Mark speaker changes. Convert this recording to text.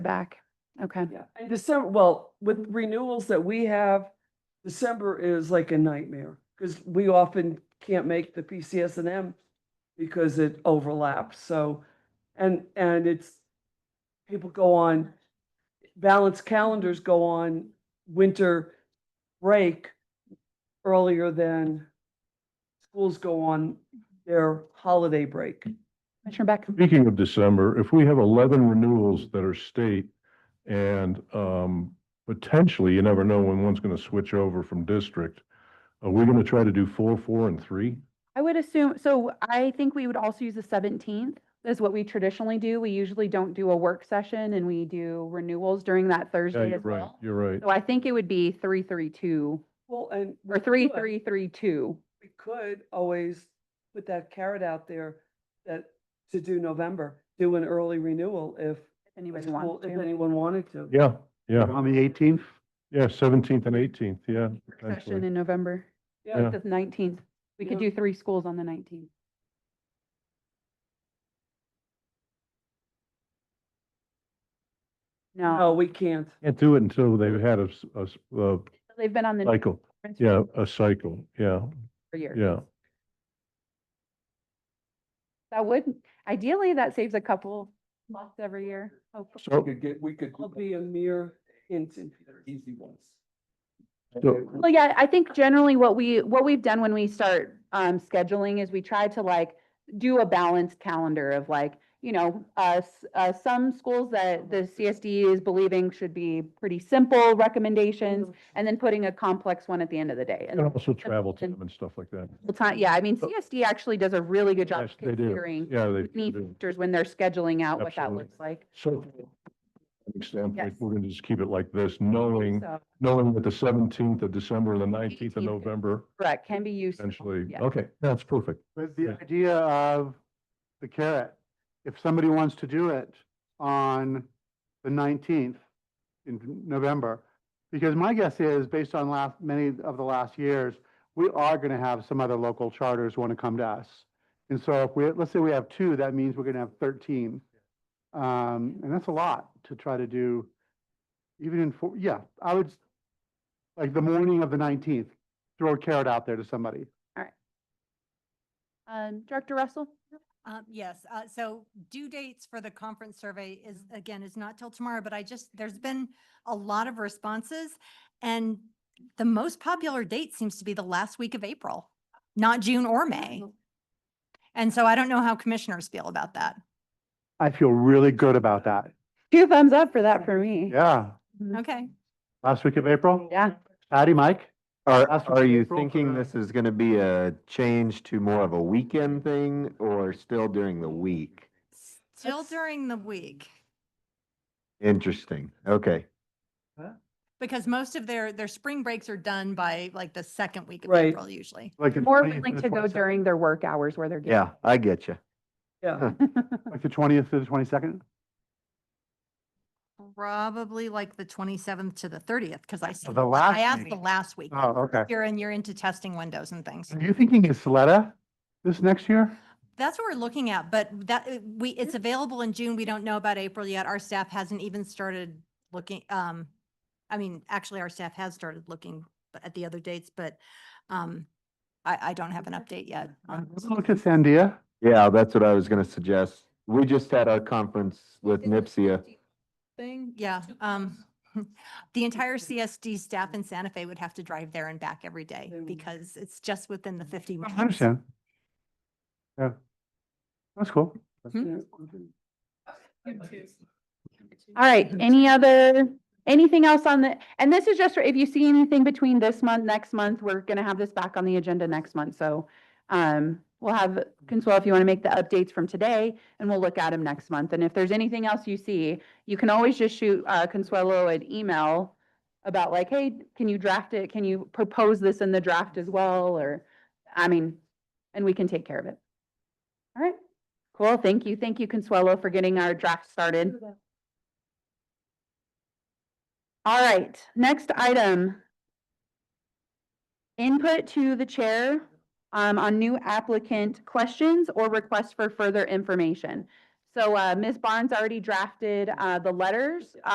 Speaker 1: back. Okay.
Speaker 2: Yeah, and December, well, with renewals that we have, December is like a nightmare, because we often can't make the PCS and M because it overlaps, so, and, and it's, people go on, balance calendars go on winter break earlier than schools go on their holiday break.
Speaker 1: Commissioner Beck,
Speaker 3: Speaking of December, if we have eleven renewals that are state and um potentially, you never know when one's gonna switch over from district. Are we gonna try to do four, four and three?
Speaker 1: I would assume, so I think we would also use the seventeenth is what we traditionally do. We usually don't do a work session and we do renewals during that
Speaker 3: Yeah,
Speaker 1: Thursday
Speaker 3: you're
Speaker 1: as
Speaker 3: right,
Speaker 1: well.
Speaker 3: you're right.
Speaker 1: So I think it would be three, three, two,
Speaker 2: Well, and.
Speaker 1: or three, three, three, two.
Speaker 2: we could always put that carrot out there that, to do November, do an early renewal if,
Speaker 1: If
Speaker 2: a
Speaker 1: anybody
Speaker 2: school-
Speaker 1: wants
Speaker 2: if
Speaker 1: to.
Speaker 2: anyone wanted to.
Speaker 3: Yeah, yeah,
Speaker 4: On the eighteenth,
Speaker 3: yeah, seventeenth and eighteenth, yeah.
Speaker 1: Work Session
Speaker 3: potentially.
Speaker 1: in November,
Speaker 2: Yeah.
Speaker 1: the nineteenth. We could
Speaker 2: Yeah.
Speaker 1: do three schools on the nineteenth.
Speaker 3: Oh.
Speaker 1: No,
Speaker 2: No, we can't.
Speaker 3: Can't do it until they've had a s- a s- a
Speaker 1: they've been on the.
Speaker 3: cycle,
Speaker 1: difference
Speaker 3: yeah, a cycle, yeah,
Speaker 1: For years.
Speaker 3: yeah.
Speaker 1: That would, ideally, that saves a couple months every year. hopefully.
Speaker 3: So
Speaker 5: could get, we could.
Speaker 2: It'll be a mere hint. in-
Speaker 5: Easy ones.
Speaker 3: So-
Speaker 1: Well, yeah, I think generally what we, what we've done when we start um scheduling is we try to like do a balanced calendar of like, you know, uh, s- uh, some schools that the CSD is believing should be pretty simple recommendations and then putting a complex one at the end of the day.
Speaker 3: and
Speaker 1: And
Speaker 3: also travel time and stuff like that.
Speaker 1: the time, yeah, I mean,
Speaker 3: So-
Speaker 1: CSD actually does a really good job
Speaker 3: Oh. Yes, they do.
Speaker 1: considering
Speaker 3: Yeah, they
Speaker 1: many
Speaker 3: do.
Speaker 1: factors when they're scheduling out what that
Speaker 3: Absolutely.
Speaker 1: looks like.
Speaker 3: So from an standpoint,
Speaker 1: Yes.
Speaker 3: we're going to just keep it like this, knowing,
Speaker 1: So,
Speaker 3: knowing that the seventeenth of December, and the nineteenth of
Speaker 1: 18th.
Speaker 3: November,
Speaker 1: correct, can be used.
Speaker 3: essentially.
Speaker 1: yeah.
Speaker 3: Okay, that's perfect.
Speaker 4: with the
Speaker 3: Yeah.
Speaker 4: idea of the carrot, if somebody wants to do it on the nineteenth in November, because my guess is, based on last, many of the last years, we are going to have some other local charters want to come to us. And so if we, let's say we have two, that means we're going to have thirteen. Um, and that's a lot to try to do, even in, four. yeah, I would, s- like, the morning of the nineteenth, throw a carrot out there to somebody.
Speaker 1: Um, Director Russell?
Speaker 6: Um, yes, uh, so due dates for the conference survey is, again, is not till tomorrow, but I just, there's been a lot of responses. And the most popular date seems to be the last week of April, not June or May. And so I don't know how commissioners feel about that.
Speaker 4: I feel really good about that.
Speaker 1: Two thumbs up for that for me.
Speaker 4: Yeah.
Speaker 6: Okay.
Speaker 4: Last week of April?
Speaker 1: Yeah.
Speaker 4: Patty, Mike?
Speaker 5: Are,
Speaker 4: That's
Speaker 5: are you
Speaker 4: April for
Speaker 5: thinking
Speaker 4: the-
Speaker 5: this is gonna be a change to more of a weekend thing or still during the week?
Speaker 6: Still
Speaker 2: That's-
Speaker 6: during the week,
Speaker 5: Interesting, okay.
Speaker 6: because most of their, their spring breaks are done by like the second week of
Speaker 2: Right.
Speaker 6: April usually.
Speaker 4: Like the
Speaker 1: More
Speaker 4: 20th and
Speaker 1: willing
Speaker 4: the
Speaker 1: to go
Speaker 4: 22nd?
Speaker 1: during their work hours where they're. getting-
Speaker 5: Yeah, I get you.
Speaker 2: Yeah,
Speaker 4: Like the twentieth to the twenty-second?
Speaker 6: Probably like the twenty-seventh to the thirtieth, because I, said-
Speaker 4: The last.
Speaker 6: I asked
Speaker 4: week.
Speaker 6: the last week.
Speaker 4: Oh, okay.
Speaker 6: You're in, you're into testing windows and things.
Speaker 4: Are you thinking it's Isleta this next year?
Speaker 6: That's what we're looking at, but that, uh, we, it's available in June. We don't know about April yet. Our staff hasn't even started looking, um, I mean, actually, our staff has started looking b- at the other dates, but, um, I, I don't have an update yet. Um, on-
Speaker 4: Let's Look at Sandia.
Speaker 5: Yeah, that's what I was gonna suggest. We just had our conference with NIPSIA.
Speaker 6: Thing, yeah, um, the entire CSD staff in Santa Fe would have to drive there and back every day
Speaker 2: They would.
Speaker 6: because it's just within the fifty.
Speaker 4: I
Speaker 6: miles.
Speaker 4: understand. Yeah. That's cool.
Speaker 3: Hmm?
Speaker 2: yeah.
Speaker 1: All right,
Speaker 2: Mm-hmm.
Speaker 1: any other, anything else on the, and this is just, for if you see anything between this month, next month, we're gonna have this back on the agenda next month, so. Um, we'll have, Consuelo, if you wanna make the updates from today, and we'll look at them next month, and if there's anything else you see, you can always just shoot, uh, Consuelo an email. About like, hey, can you draft it, can you propose this in the draft as well, or, I mean, and we can take care of it. All right, cool, thank you, thank you, Consuelo, for getting our draft started. All right, next item. Input to the chair um, on new applicant questions or requests for further information. So uh, Ms. Barnes already drafted uh, the letters.